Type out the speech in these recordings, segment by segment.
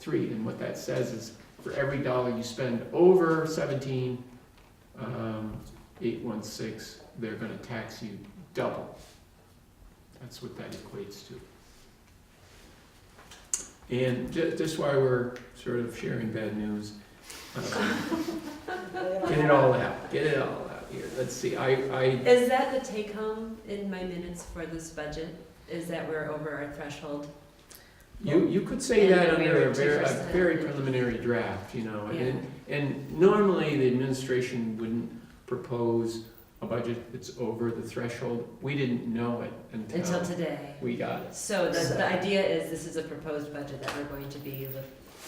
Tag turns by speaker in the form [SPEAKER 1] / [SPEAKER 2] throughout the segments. [SPEAKER 1] three, and what that says is for every dollar you spend over seventeen, um, eight one six, they're gonna tax you double. That's what that equates to. And ju- just why we're sort of sharing bad news, um, get it all out, get it all out here, let's see, I, I
[SPEAKER 2] Is that the take home in my minutes for this budget? Is that we're over our threshold?
[SPEAKER 1] You, you could say
[SPEAKER 2] And
[SPEAKER 1] that
[SPEAKER 2] then we
[SPEAKER 1] under a
[SPEAKER 2] were
[SPEAKER 1] very, a
[SPEAKER 2] 2%.
[SPEAKER 1] very preliminary draft, you know,
[SPEAKER 2] Yeah.
[SPEAKER 1] and, and normally the administration wouldn't propose a budget that's over the threshold. We didn't know it
[SPEAKER 2] Until
[SPEAKER 1] until
[SPEAKER 2] today.
[SPEAKER 1] we got it.
[SPEAKER 2] So the, the idea is this is a proposed budget that we're going to be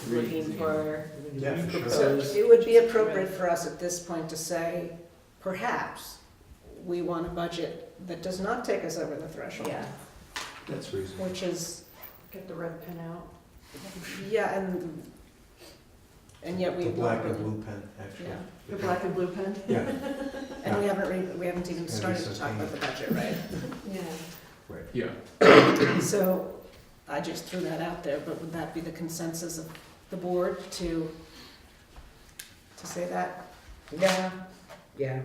[SPEAKER 2] loo- looking for.
[SPEAKER 3] Yeah, for sure.
[SPEAKER 4] So it would be appropriate for us at this point to say, perhaps, we want a budget that does not take us over the threshold.
[SPEAKER 2] Yeah.
[SPEAKER 3] That's reasonable.
[SPEAKER 4] Which is,
[SPEAKER 5] Get the red pen out.
[SPEAKER 4] yeah, and, and yet we.
[SPEAKER 3] The black and blue pen, actually.
[SPEAKER 4] Yeah.
[SPEAKER 5] The black and blue pen?
[SPEAKER 3] Yeah,
[SPEAKER 4] And we haven't, re- we haven't even
[SPEAKER 3] Maybe
[SPEAKER 4] started to talk about the budget, right?
[SPEAKER 5] Yeah.
[SPEAKER 1] Yeah,
[SPEAKER 4] So I just threw that out there, but would that be the consensus of the board to, to say that?
[SPEAKER 6] Yeah, yeah.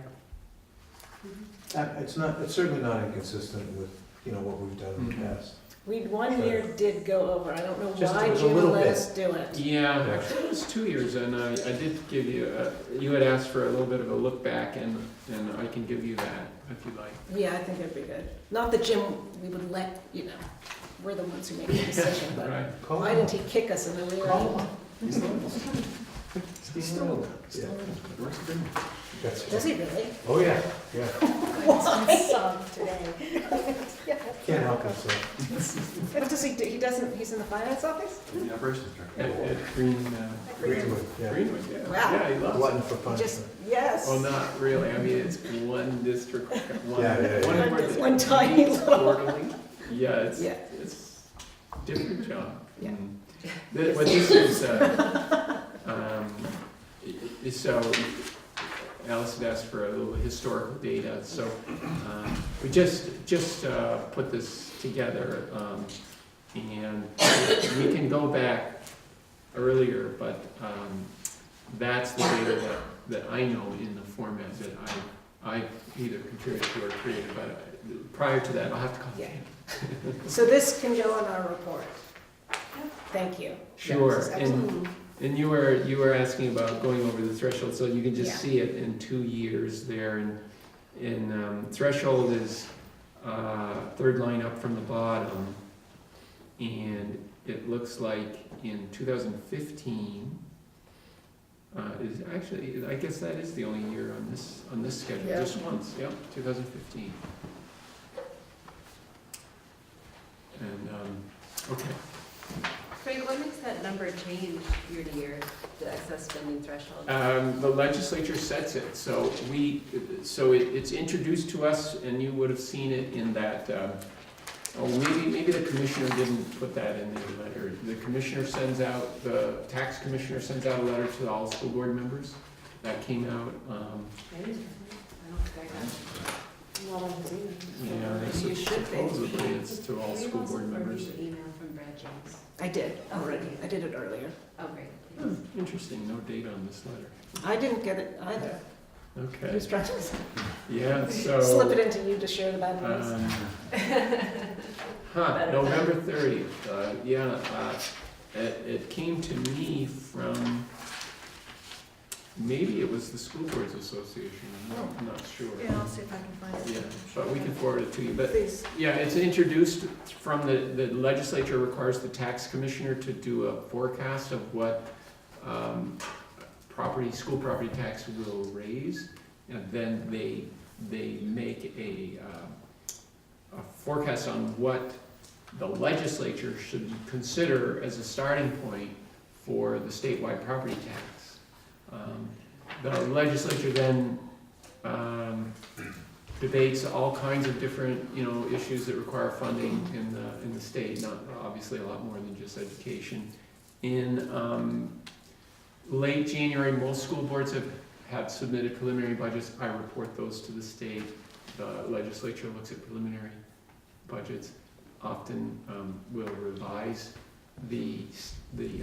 [SPEAKER 3] Uh, it's not, it's certainly not inconsistent with, you know, what we've done in the
[SPEAKER 1] Mhm.
[SPEAKER 3] past.
[SPEAKER 4] We, one year did go over, I don't know
[SPEAKER 3] Just
[SPEAKER 4] why
[SPEAKER 3] it was a
[SPEAKER 4] Jim
[SPEAKER 3] little
[SPEAKER 4] let
[SPEAKER 3] bit.
[SPEAKER 4] us do it.
[SPEAKER 1] yeah, actually it was two years and I, I did give you, a- you had asked for a little bit of a look back and, and I can give you that if you'd like.
[SPEAKER 4] Yeah, I think it'd be good. Not that Jim, we would let, you know, we're the ones who make the decision, but
[SPEAKER 1] Right,
[SPEAKER 3] Call
[SPEAKER 4] why
[SPEAKER 3] him
[SPEAKER 4] didn't
[SPEAKER 3] up.
[SPEAKER 4] he kick us in the rear?
[SPEAKER 3] Call him up.
[SPEAKER 6] He's still alive.
[SPEAKER 3] Yeah. That's-
[SPEAKER 4] Does he really?
[SPEAKER 3] Oh, yeah, yeah.
[SPEAKER 5] today.
[SPEAKER 3] Can't help himself.
[SPEAKER 4] What does he do? He doesn't, he's in the finance office?
[SPEAKER 6] The operations
[SPEAKER 1] at, at Green, uh,
[SPEAKER 3] Greenwood, yeah.
[SPEAKER 1] Greenwood, yeah,
[SPEAKER 4] Wow.
[SPEAKER 1] yeah, he loves it.
[SPEAKER 3] Glutton for
[SPEAKER 4] He just,
[SPEAKER 3] punishment.
[SPEAKER 4] yes.
[SPEAKER 3] Oh,
[SPEAKER 1] Well, not really, I mean, it's one district, one,
[SPEAKER 3] Yeah, yeah, yeah.
[SPEAKER 1] one.
[SPEAKER 4] One-
[SPEAKER 1] person.
[SPEAKER 4] one tiny little-
[SPEAKER 1] Quarterly. Yeah, it's,
[SPEAKER 4] Yeah.
[SPEAKER 1] it's different job.
[SPEAKER 4] Yeah.
[SPEAKER 1] Mm. Th- What this is, uh, um, i- i- so Alice had asked for a little historical data, so um, we just, just uh, put this together. um, And we can go back earlier, but um, that's the data that, that I know in the format that I, I either contributed to or created, but uh, prior to that, I'll have to call
[SPEAKER 4] Yeah.
[SPEAKER 1] you.
[SPEAKER 4] So this can go on our report. Thank you.
[SPEAKER 1] Sure,
[SPEAKER 4] Yes,
[SPEAKER 1] and, and you were, you were asking about going over the threshold, so you can
[SPEAKER 4] Yeah.
[SPEAKER 1] just see it in two years there, and, and, um, threshold is, uh, third line up from the bottom, and it looks like in two thousand fifteen, uh, is actually, I guess that is the only year on this, on this schedule,
[SPEAKER 4] Yeah.
[SPEAKER 1] just once, yep, two thousand fifteen. And, um, okay.
[SPEAKER 2] Frank, what makes that number change year to year, the excess spending threshold?
[SPEAKER 1] Um, the legislature sets it, so we, so it, it's introduced to us, and you would have seen it in that, uh, oh, maybe, maybe the commissioner didn't put that in the letter. The commissioner sends out, the tax commissioner sends out a letter to all school board members. That came out, um,
[SPEAKER 5] I don't think I got. Not on his email.
[SPEAKER 1] you know,
[SPEAKER 4] You should be.
[SPEAKER 1] supposedly it's to all
[SPEAKER 2] Can we
[SPEAKER 1] school
[SPEAKER 2] also
[SPEAKER 1] board members.
[SPEAKER 2] forward the email from Brad James?
[SPEAKER 4] I did already. I did it earlier.
[SPEAKER 2] Oh, great.
[SPEAKER 1] Hmm, Interesting, no date on this letter.
[SPEAKER 4] I didn't get it either. He
[SPEAKER 1] Okay,
[SPEAKER 4] was trying to
[SPEAKER 1] yeah, so.
[SPEAKER 4] slip it into you to share the bad
[SPEAKER 3] Uh,
[SPEAKER 4] news.
[SPEAKER 1] Um, Huh, November thirtieth, uh, yeah, uh, it, it came to me from, maybe it was the School Boards Association, I'm not, I'm not sure.
[SPEAKER 5] Yeah, I'll see if I can find it.
[SPEAKER 1] Yeah, but we can forward it to you, but,
[SPEAKER 4] Please.
[SPEAKER 1] yeah, it's introduced from the, the legislature requires the tax commissioner to do a forecast of what, um, property, school property tax will raise, and then they, they make a, uh, a forecast on what the legislature should consider as a starting point for the statewide property tax. Um, The legislature then, um, debates all kinds of different, you know, issues that require funding in the, in the state, not, obviously, a lot more than just education. In, um, late January, most school boards have, have submitted preliminary budgets, I report those to the state. The legislature looks at preliminary budgets, often, um, will revise the, s- the